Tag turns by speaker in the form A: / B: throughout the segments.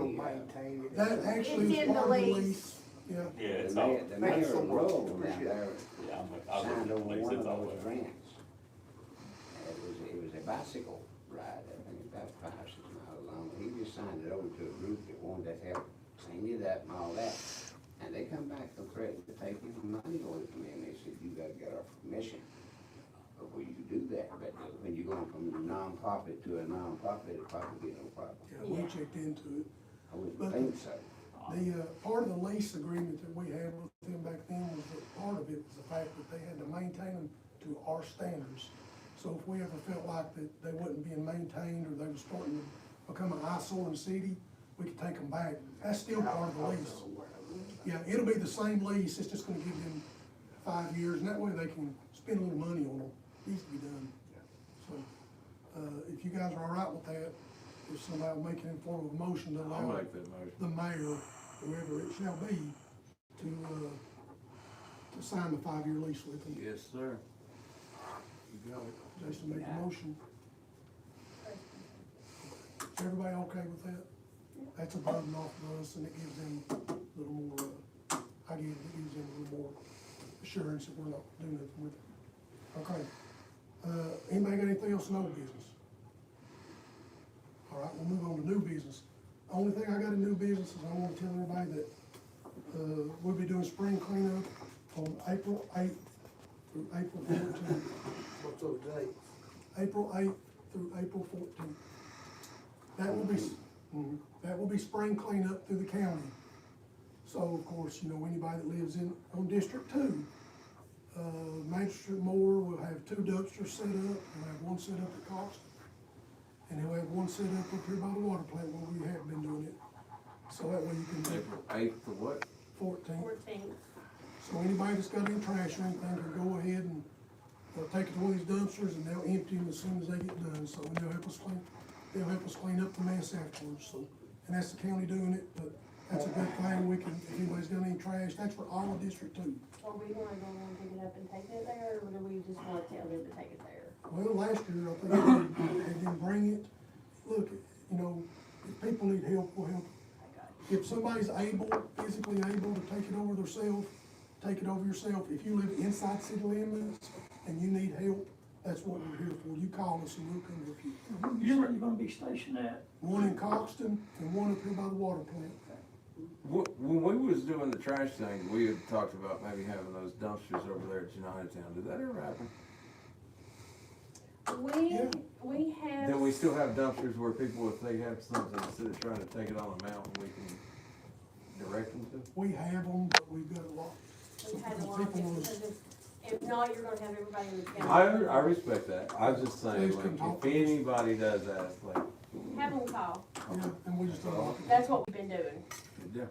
A: maintain it.
B: That actually
C: It's
B: is
C: in the
B: part of the
C: lease.
B: lease, yeah.
D: Yeah, it's
E: The
D: all,
E: mayor,
D: yeah,
E: the mayor
A: Excellent.
E: rolled down
A: Appreciate
E: there,
D: I'm, with- I'm,
E: signed
D: with
E: over
D: Lee,
E: one
D: it's
E: of
D: all
E: those
D: over.
E: grants. And It was, it was a bicycle ride, I think about five, six miles long, he just signed it over to a group that wanted to help clean it up and all that. And they come back and threatened to take his money away from him, they said, you gotta get our permission before you do that, but when you're going from a nonprofit to a nonprofit, it'll probably be no problem.
B: Yeah, we checked into it.
E: I wouldn't think so.
B: The, uh, part of the lease agreement that we had with them back then was that part of it was the fact that they had to maintain them to our standards. So if we ever felt like that they wasn't being maintained or they were starting to become an eyesore in the city, we could take them back. That's still part of the lease. Yeah, it'll be the same lease, it's just gonna give them five years, and that way they can spend a little money on them. Needs to be done. So, uh, if you guys are all right with that, if somebody will make an informal motion to
F: I'll
B: allow
F: make that motion.
B: the mayor, whoever it shall be, to, uh, to sign the five-year lease with them.
F: Yes, sir. You got it.
B: Jason made the motion. Is everybody okay with that? That's a burden off of us, and it gives them a little more, uh, I give, it gives them a little more assurance that we're not doing it with it. Okay, uh, anybody got anything else in old business? All right, we'll move on to new business. Only thing I got in new business is I wanna tell everybody that, uh, we'll be doing spring cleanup on April eighth through April fourteenth.
A: What's those dates?
B: April eighth through April fourteenth. That will be, mhm, that will be spring cleanup through the county. So of course, you know, anybody that lives in, on District Two, uh, Magistrate Moore will have two dumpsters set up, he'll have one set up at Cox. And he'll have one set up up here by the water plant where we have been doing it. So that way you can do
F: April eighth to what?
B: fourteen.
C: Fourteenth.
B: So anybody that's got any trash or anything can go ahead and, uh take it to one of these dumpsters and they'll empty them as soon as they get done, so they'll help us clean, they'll help us clean up the mess afterwards, so. And that's the county doing it, but that's a good thing, we can, if anybody's got any trash, that's for all of District Two.
C: Are we gonna go and pick it up and take it there, or do we just wanna tell them to take it there?
B: Well, last year, I think they did- they didn't bring it, look, you know, if people need help, we'll help. If somebody's able, physically able to take it over theirself, take it over yourself. If you live inside city limits and you need help, that's what we're here for. You call us and we'll come help you.
G: Usually you're gonna be stationed at,
B: One in Coxton and one up here by the water plant.
F: Wh- When we was doing the trash thing, we had talked about maybe having those dumpsters over there at United Town. Did that ever happen?
C: We,
B: Yeah.
C: we have.
F: Then we still have dumpsters where people, if they have something, instead of trying to take it on a mountain, we can direct them to?
B: We have them, but we've got a lot.
C: We've had a lot of
B: People
C: it,
B: will-
C: because if, if not, you're gonna have everybody in the
F: I,
C: county.
F: I respect that. I was just saying,
B: Please
F: like,
B: come talk
F: if
B: to us.
F: anybody does that, it's like,
C: Have them call,
B: Yeah, and we just, don't-
C: that's what we've been doing.
F: yeah.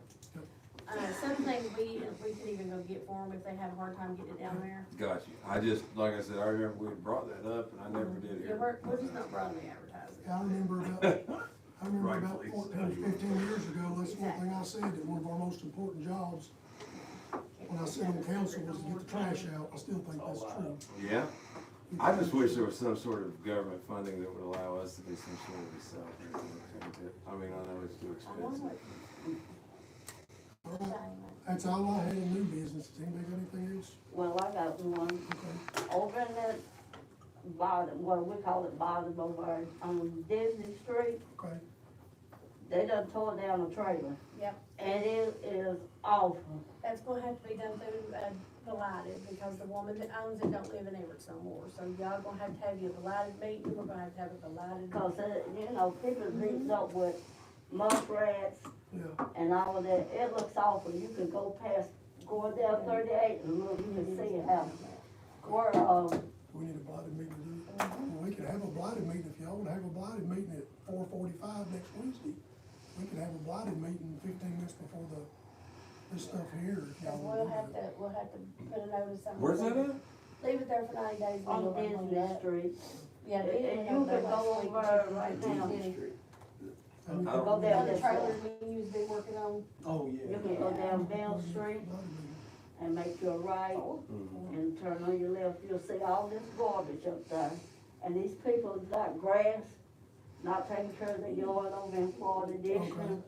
C: Uh, some things we, we could even go get for them if they have a hard time getting it down there.
F: Got you. I just, like I said, I remember we had brought that up and I never did
C: Yeah,
F: hear.
C: we're, we're just not broadly advertising.
B: I remember about, I remember about
F: Rightfully so.
B: fourteen, or fifteen years ago, that's one thing I said, that one of our most important jobs when I sit on council was to get the trash out, I still think that's true.
F: Yeah. I just wish there was some sort of government funding that would allow us to do some sort of recycling. I mean, I know it's
C: I
F: too
C: know
F: expensive.
C: what
B: All
C: you're
B: right,
C: saying.
B: That's all I had in new business, does anybody got anything else?
H: Well, I got one
B: Okay,
H: over in that bottom, what we call it bottom over on Disney Street.
B: okay,
H: They done tore down a trailer
C: Yep,
H: and it is awful.
C: that's gonna have to be done through, uh, Delighted, because the woman that owns it don't live in Everett no more, so y'all gonna have to have your Delighted meeting, we're gonna have to have a Delighted.
H: Cause it, uh, you know, people
C: Mm-hmm.
H: beating up with muck rats
B: yeah,
H: and all of that. It looks awful. You can go past, going down thirty-eight and look, you can see how, where, um,
B: we need a blighted meeting to do. it. Well, We could have a blighted meeting, if y'all wanna have a blighted meeting at four forty-five next Wednesday, we could have a blighted meeting fifteen minutes before the, this stuff here, if y'all
C: And we'll
B: wanna
C: have
B: do that.
C: to, we'll have to put a notice on.
F: Where's that at?
C: Leave it there for nine days. we'll
H: on
C: go back
H: Disney
C: that.
H: Street.
C: Yeah, they didn't
H: And
C: have
H: you
C: that last
H: can go
C: week.
H: over right now.
B: I mean,
F: I don't-
H: Go
C: The
H: down
C: other
H: this
C: trailers
H: way.
C: we used, they working on,
A: Oh, yeah.
H: You can go down Bell
B: blighted
H: Street
B: meeting.
H: and make your right.
F: Mm-hmm.
H: and turn on your left, you'll see all this garbage up there. And these people got grass, not taking care of the yard over in Florida
B: Okay.
H: Dixon.